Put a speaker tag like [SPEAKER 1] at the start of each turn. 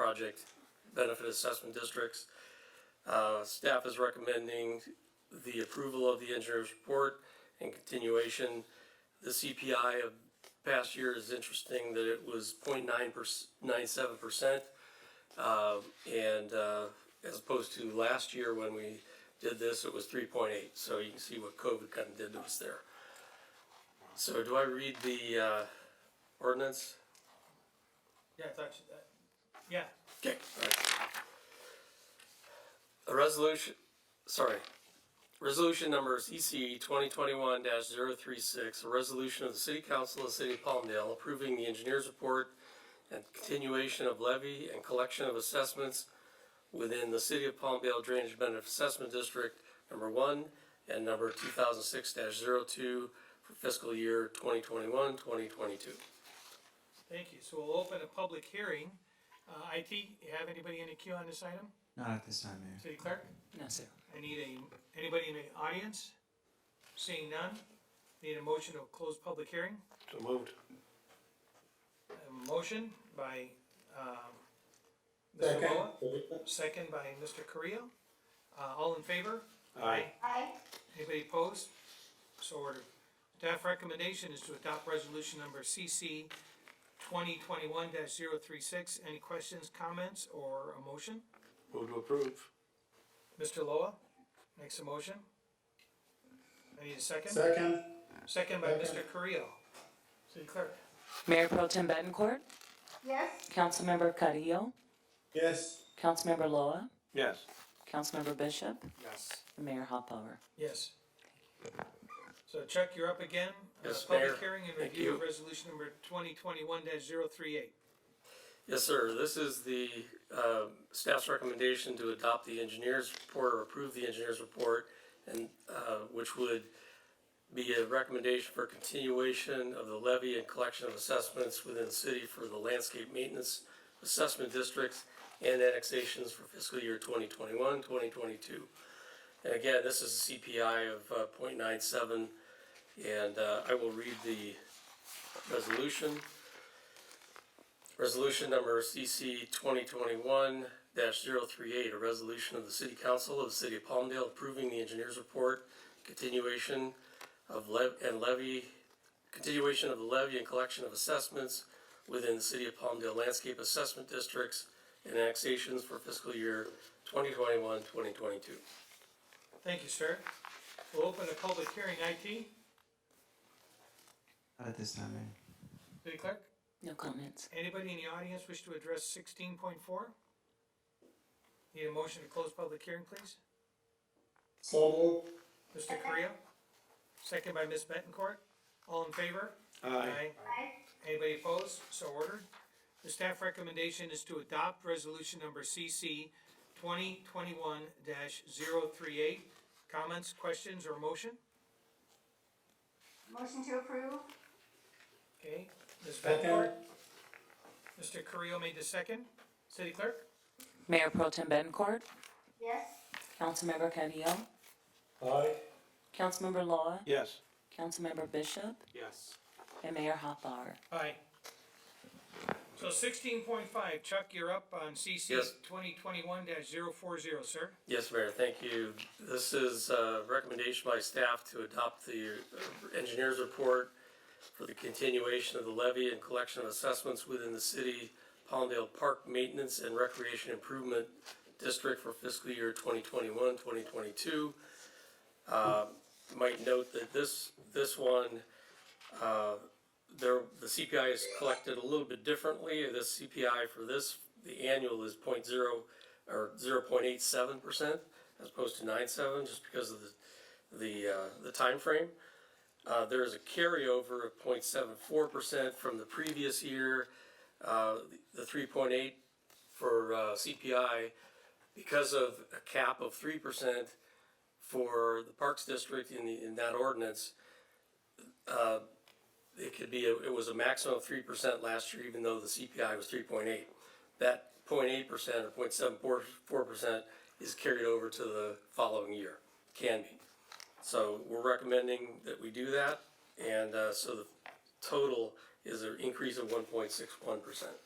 [SPEAKER 1] project benefit assessment districts. Uh, staff is recommending the approval of the engineer's report and continuation. The CPI of past year is interesting that it was 0.9 percent. and, uh, as opposed to last year when we did this, it was three point eight, so you can see what COVID kind of did to us there. So do I read the, uh, ordinance?
[SPEAKER 2] Yeah, I thought you, that, yeah,
[SPEAKER 1] Okay. A resolution, sorry, resolution number EC twenty twenty-one 36 a resolution of the city council of the city of Palmdale approving the engineer's report and continuation of levy and collection of assessments within the city of Palmdale Drainage Benefit Assessment District number one and number two thousand six 2 for fiscal year 2021-2022.
[SPEAKER 2] thank you. So we'll open a public hearing. Uh, IT, you have anybody in the queue on this item?
[SPEAKER 3] Not at this time, Mayor.
[SPEAKER 2] City clerk?
[SPEAKER 4] No, sir.
[SPEAKER 2] I need a, anybody in the audience? Seeing none, need a motion to close public hearing?
[SPEAKER 5] So moved.
[SPEAKER 2] A motion by, um, Mr.
[SPEAKER 5] Second.
[SPEAKER 2] Moa, second by Mr. Carrillo. Uh, all in favor?
[SPEAKER 5] Aye.
[SPEAKER 6] Aye.
[SPEAKER 2] Anybody opposed? So ordered. Staff recommendation is to adopt resolution number CC twenty twenty-one 36 Any questions, comments, or a motion?
[SPEAKER 5] Move to approve.
[SPEAKER 2] Mr. Loa makes a motion. I need a second.
[SPEAKER 5] Second.
[SPEAKER 2] Second by Mr. Carrillo. City clerk.
[SPEAKER 4] Mayor Pro Tem Bettencourt,
[SPEAKER 6] Yes.
[SPEAKER 4] Councilmember Carrillo,
[SPEAKER 5] Yes.
[SPEAKER 4] Councilmember Loa,
[SPEAKER 5] Yes.
[SPEAKER 4] Councilmember Bishop. Yes. And Mayor Hoppower.
[SPEAKER 2] Yes. So Chuck, you're up again. Uh,
[SPEAKER 1] Yes, Mayor.
[SPEAKER 2] Public hearing and
[SPEAKER 1] Thank
[SPEAKER 2] review
[SPEAKER 1] you.
[SPEAKER 2] of resolution number twenty twenty-one 38
[SPEAKER 1] Yes, sir. This is the uh, staff's recommendation to adopt the engineer's report or approve the engineer's report, and uh, which would be a recommendation for continuation of the levy and collection of assessments within the city for the landscape maintenance assessment districts and annexations for fiscal year 2021-2022. And again, this is a CPI of uh, 0.97, and uh, I will read the resolution. Resolution number CC twenty twenty-one 38 a resolution of the city council of the city of Palmdale approving the engineer's report, continuation of lev- and levy, continuation of the levy and collection of assessments within the city of Palmdale landscape assessment districts and annexations for fiscal year 2021-2022.
[SPEAKER 2] Thank you, sir. We'll open a public hearing. IT,
[SPEAKER 3] Not at this time, Mayor.
[SPEAKER 2] City Clerk,
[SPEAKER 4] No comments.
[SPEAKER 2] anybody in the audience wish to address sixteen point four? Need a motion to close public hearing, please?
[SPEAKER 5] So
[SPEAKER 2] Mr. Correa, second by Ms. Betancourt. All in favor?
[SPEAKER 5] Aye.
[SPEAKER 6] Aye.
[SPEAKER 2] Anybody opposed? So ordered. The staff recommendation is to adopt resolution number CC twenty twenty-one 38 Comments, questions, or motion?
[SPEAKER 6] Motion to approve?
[SPEAKER 2] Okay, Ms. Betancourt? Mr. Carrillo made the second. City Clerk?
[SPEAKER 4] Mayor Pro Tem Bettencourt,
[SPEAKER 6] Yes.
[SPEAKER 4] Councilmember Carrillo,
[SPEAKER 5] Aye.
[SPEAKER 4] Councilmember Loa,
[SPEAKER 5] Yes.
[SPEAKER 4] Councilmember Bishop,
[SPEAKER 5] Yes.
[SPEAKER 4] and Mayor Hoppower.
[SPEAKER 2] Aye. So sixteen point five, Chuck, you're up on CC
[SPEAKER 1] Yes.
[SPEAKER 2] twenty twenty-one 40 sir.
[SPEAKER 1] Yes, Mayor, thank you. This is a recommendation by staff to adopt the uh, engineer's report for the continuation of the levy and collection of assessments within the city Palmdale Park Maintenance and Recreation Improvement District for fiscal year 2021-2022. Uh, might note that this, this one, uh, there, the CPI is collected a little bit differently. This CPI for this, the annual is point zero, or zero point eight seven percent as opposed to nine seven, just because of the, the, uh, the timeframe. Uh, there is a carryover of 0.74 percent from the previous year, uh, the three point eight for, uh, CPI. Because of a cap of three percent for the Parks District in the, in that ordinance, uh, it could be, a- it was a maximum of three percent last year, even though the CPI was three point eight. That 0.8 percent or 0.74 percent is carried over to the following year, can be. So we're recommending that we do that, and, uh, so the total is an increase of one point six one percent.